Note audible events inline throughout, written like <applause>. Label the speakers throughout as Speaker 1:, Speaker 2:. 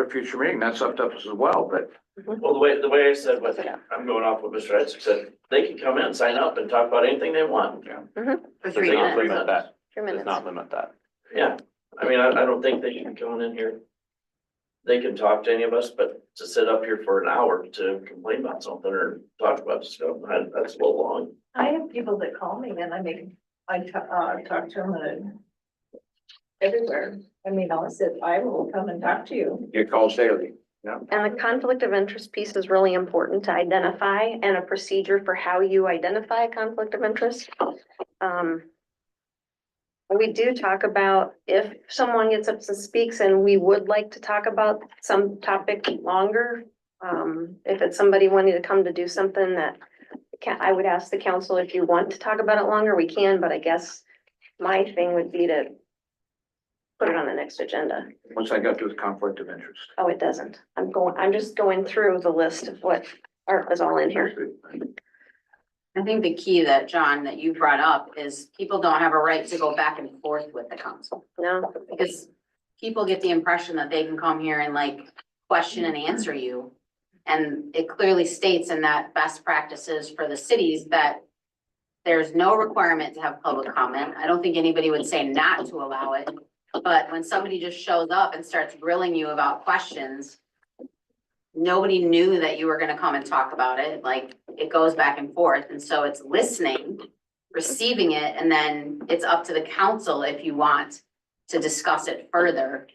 Speaker 1: a future meeting, that's up to us as well, but
Speaker 2: Well, the way, the way I said, what,
Speaker 3: Close it up.
Speaker 2: I'm going off what Mr. Etzick said, they can come in, sign up and talk about anything they want.
Speaker 3: For
Speaker 2: But they
Speaker 3: three
Speaker 2: don't
Speaker 3: minutes,
Speaker 2: limit that.
Speaker 3: three minutes.
Speaker 4: limit that.
Speaker 2: Yeah, I mean, I, I don't think they should be going in here. They can talk to any of us, but to sit up here for an hour to complain about something or talk about stuff, that- that's a little long.
Speaker 5: I have people that call me and I mean, I ta- uh, talk to them and everywhere. I mean, I said, I will come and talk to you.
Speaker 1: you call daily.
Speaker 3: And the conflict of interest piece is really important to identify and a procedure for how you identify a conflict of interest. Um. We do talk about if someone gets up and speaks and we would like to talk about some topic longer. Um, if it's somebody wanting to come to do something that can, I would ask the council if you want to talk about it longer, we can, but I guess my thing would be to put it on the next agenda.
Speaker 1: Once I got to the conflict of interest.
Speaker 3: Oh, it doesn't. I'm going, I'm just going through the list of what are, is all in here.
Speaker 6: I think the key that, John, that you brought up is people don't have a right to go back and forth with the council.
Speaker 3: No,
Speaker 6: Because people get the impression that they can come here and like question and answer you. And it clearly states in that best practices for the cities that there's no requirement to have public comment. I don't think anybody would say not to allow it. But when somebody just shows up and starts grilling you about questions, nobody knew that you were gonna come and talk about it, like, it goes back and forth, and so it's listening, receiving it, and then it's up to the council if you want to discuss it further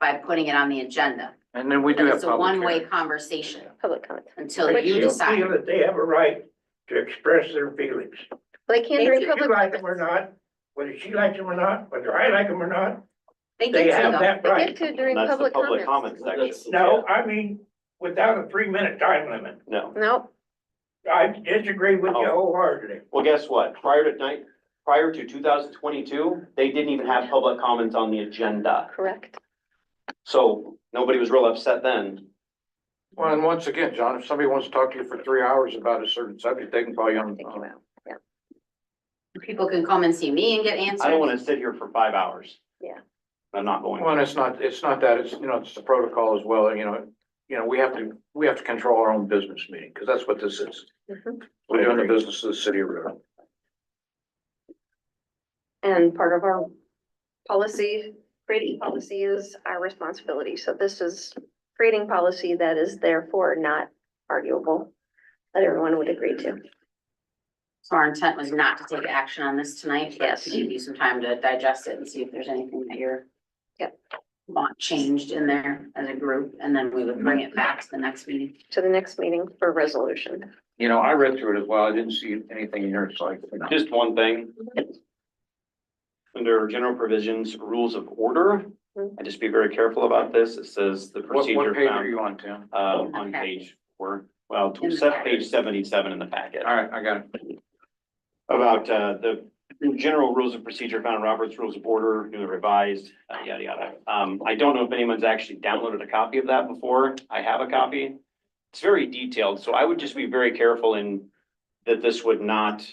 Speaker 6: by putting it on the agenda.
Speaker 1: And then we
Speaker 6: But
Speaker 1: do have
Speaker 6: It's a
Speaker 1: public
Speaker 6: one-way
Speaker 1: hearing.
Speaker 6: conversation
Speaker 3: public comment.
Speaker 6: until you
Speaker 7: They
Speaker 6: decide.
Speaker 7: feel that they have a right to express their feelings.
Speaker 3: They can
Speaker 6: They
Speaker 3: during
Speaker 7: Whether you
Speaker 3: public.
Speaker 7: like them or not, whether she likes them or not, whether I like them or not,
Speaker 6: They
Speaker 7: they
Speaker 6: get to
Speaker 7: have
Speaker 6: though.
Speaker 7: that
Speaker 3: They get
Speaker 7: right.
Speaker 3: to during
Speaker 4: That's the
Speaker 3: public
Speaker 4: public
Speaker 3: comments.
Speaker 4: comment section.
Speaker 7: No, I mean, without a three-minute time limit.
Speaker 4: No.
Speaker 3: No,
Speaker 7: I disagree with you wholeheartedly.
Speaker 4: Well, guess what? Prior to night, prior to two thousand twenty-two, they didn't even have public comments on the agenda.
Speaker 3: correct.
Speaker 4: So nobody was real upset then.
Speaker 1: Well, and once again, John, if somebody wants to talk to you for three hours about a certain subject, they can call you on.
Speaker 3: Take you out.
Speaker 6: People can come and see me and get answers.
Speaker 4: I don't wanna sit here for five hours.
Speaker 3: Yeah.
Speaker 4: I'm not going.
Speaker 1: Well, and it's not, it's not that, it's, you know, it's the protocol as well, you know, you know, we have to, we have to control our own business meeting, because that's what this is.
Speaker 7: Mm-hmm.
Speaker 3: Mhm.
Speaker 1: We're doing the business of the city of River.
Speaker 3: And part of our policy, creating policy is our responsibility. So this is creating policy that is therefore not arguable, that everyone would agree to.
Speaker 6: So our intent was not to take action on this tonight, but
Speaker 3: Yes.
Speaker 6: to give you some time to digest it and see if there's anything that you're.
Speaker 3: Yep.
Speaker 6: Want changed in there as a group, and then we would bring it back to the next meeting.
Speaker 3: To the next meeting for resolution.
Speaker 1: You know, I read through it as well, I didn't see anything in here, it's like,
Speaker 4: Just one thing. Under general provisions, rules of order, I just be very careful about this. It says the
Speaker 1: what,
Speaker 4: procedure
Speaker 1: what page are
Speaker 4: found,
Speaker 1: you on, Tim?
Speaker 4: uh, on page four, well,
Speaker 6: In the
Speaker 4: set
Speaker 6: packet.
Speaker 4: page seventy-seven in the packet.
Speaker 1: All right, I got it.
Speaker 4: About, uh, the general rules of procedure found in Robert's Rules of Order, newly revised, uh, yada, yada. Um, I don't know if anyone's actually downloaded a copy of that before. I have a copy. It's very detailed, so I would just be very careful in that this would not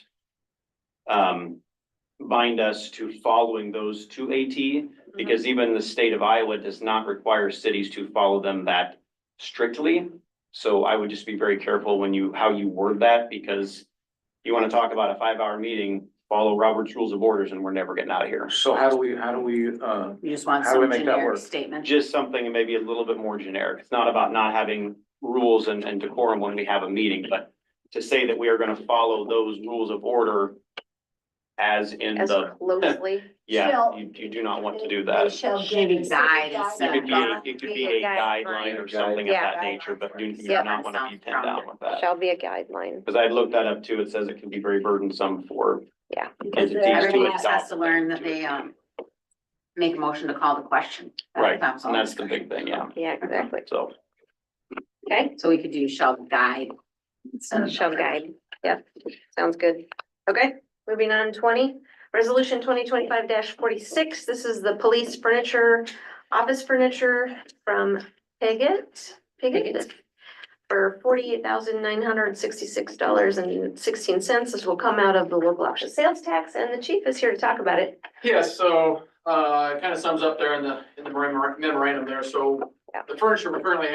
Speaker 4: um, bind us to following those to AT, because even the state of Iowa does not require cities to follow them that strictly. So I would just be very careful when you, how you word that, because you want to talk about a five-hour meeting, follow Robert's Rules of Orders, and we're never getting out of here.
Speaker 1: So how do we, how do we, uh,
Speaker 6: You just want
Speaker 1: How do we
Speaker 6: some
Speaker 1: make that work?
Speaker 6: generic statement.
Speaker 4: Just something maybe a little bit more generic. It's not about not having rules and, and decorum when we have a meeting, but to say that we are going to follow those rules of order as in
Speaker 3: As
Speaker 4: the, <laughs>
Speaker 3: closely.
Speaker 4: yeah,
Speaker 5: Shall-
Speaker 4: you, you do not want to do
Speaker 5: They
Speaker 4: that.
Speaker 5: shall give
Speaker 6: Maybe
Speaker 5: you guide
Speaker 6: guide
Speaker 4: It
Speaker 6: instead
Speaker 4: could
Speaker 6: of
Speaker 4: be, a- it could be a guideline or something of
Speaker 3: Yeah.
Speaker 4: that nature, but you do
Speaker 3: Yeah.
Speaker 4: not want to be pinned down with that.
Speaker 3: Shall be a guideline.
Speaker 4: Because I looked that up too. It says it can be very burdensome for
Speaker 5: Because
Speaker 4: entities
Speaker 5: they're-
Speaker 4: to
Speaker 6: Everybody
Speaker 4: adopt.
Speaker 6: just has to learn that they, um, make a motion to call the question.
Speaker 4: Right,
Speaker 6: That's all.
Speaker 4: and that's the big thing, yeah.
Speaker 3: Yeah, exactly.
Speaker 4: So
Speaker 3: Okay,
Speaker 6: So we could do shall guide. instead of
Speaker 3: shall guide. Yep, sounds good. Okay, moving on, twenty, resolution twenty twenty-five forty-six. This is the police furniture, office furniture from Piggott, Piggott. For forty-eight thousand nine hundred sixty-six dollars and sixteen cents. This will come out of the local option sales tax and the chief is here to talk about it.
Speaker 8: Yeah, so, uh, it kind of sums up there in the, in the memorandum there, so
Speaker 1: The furniture we currently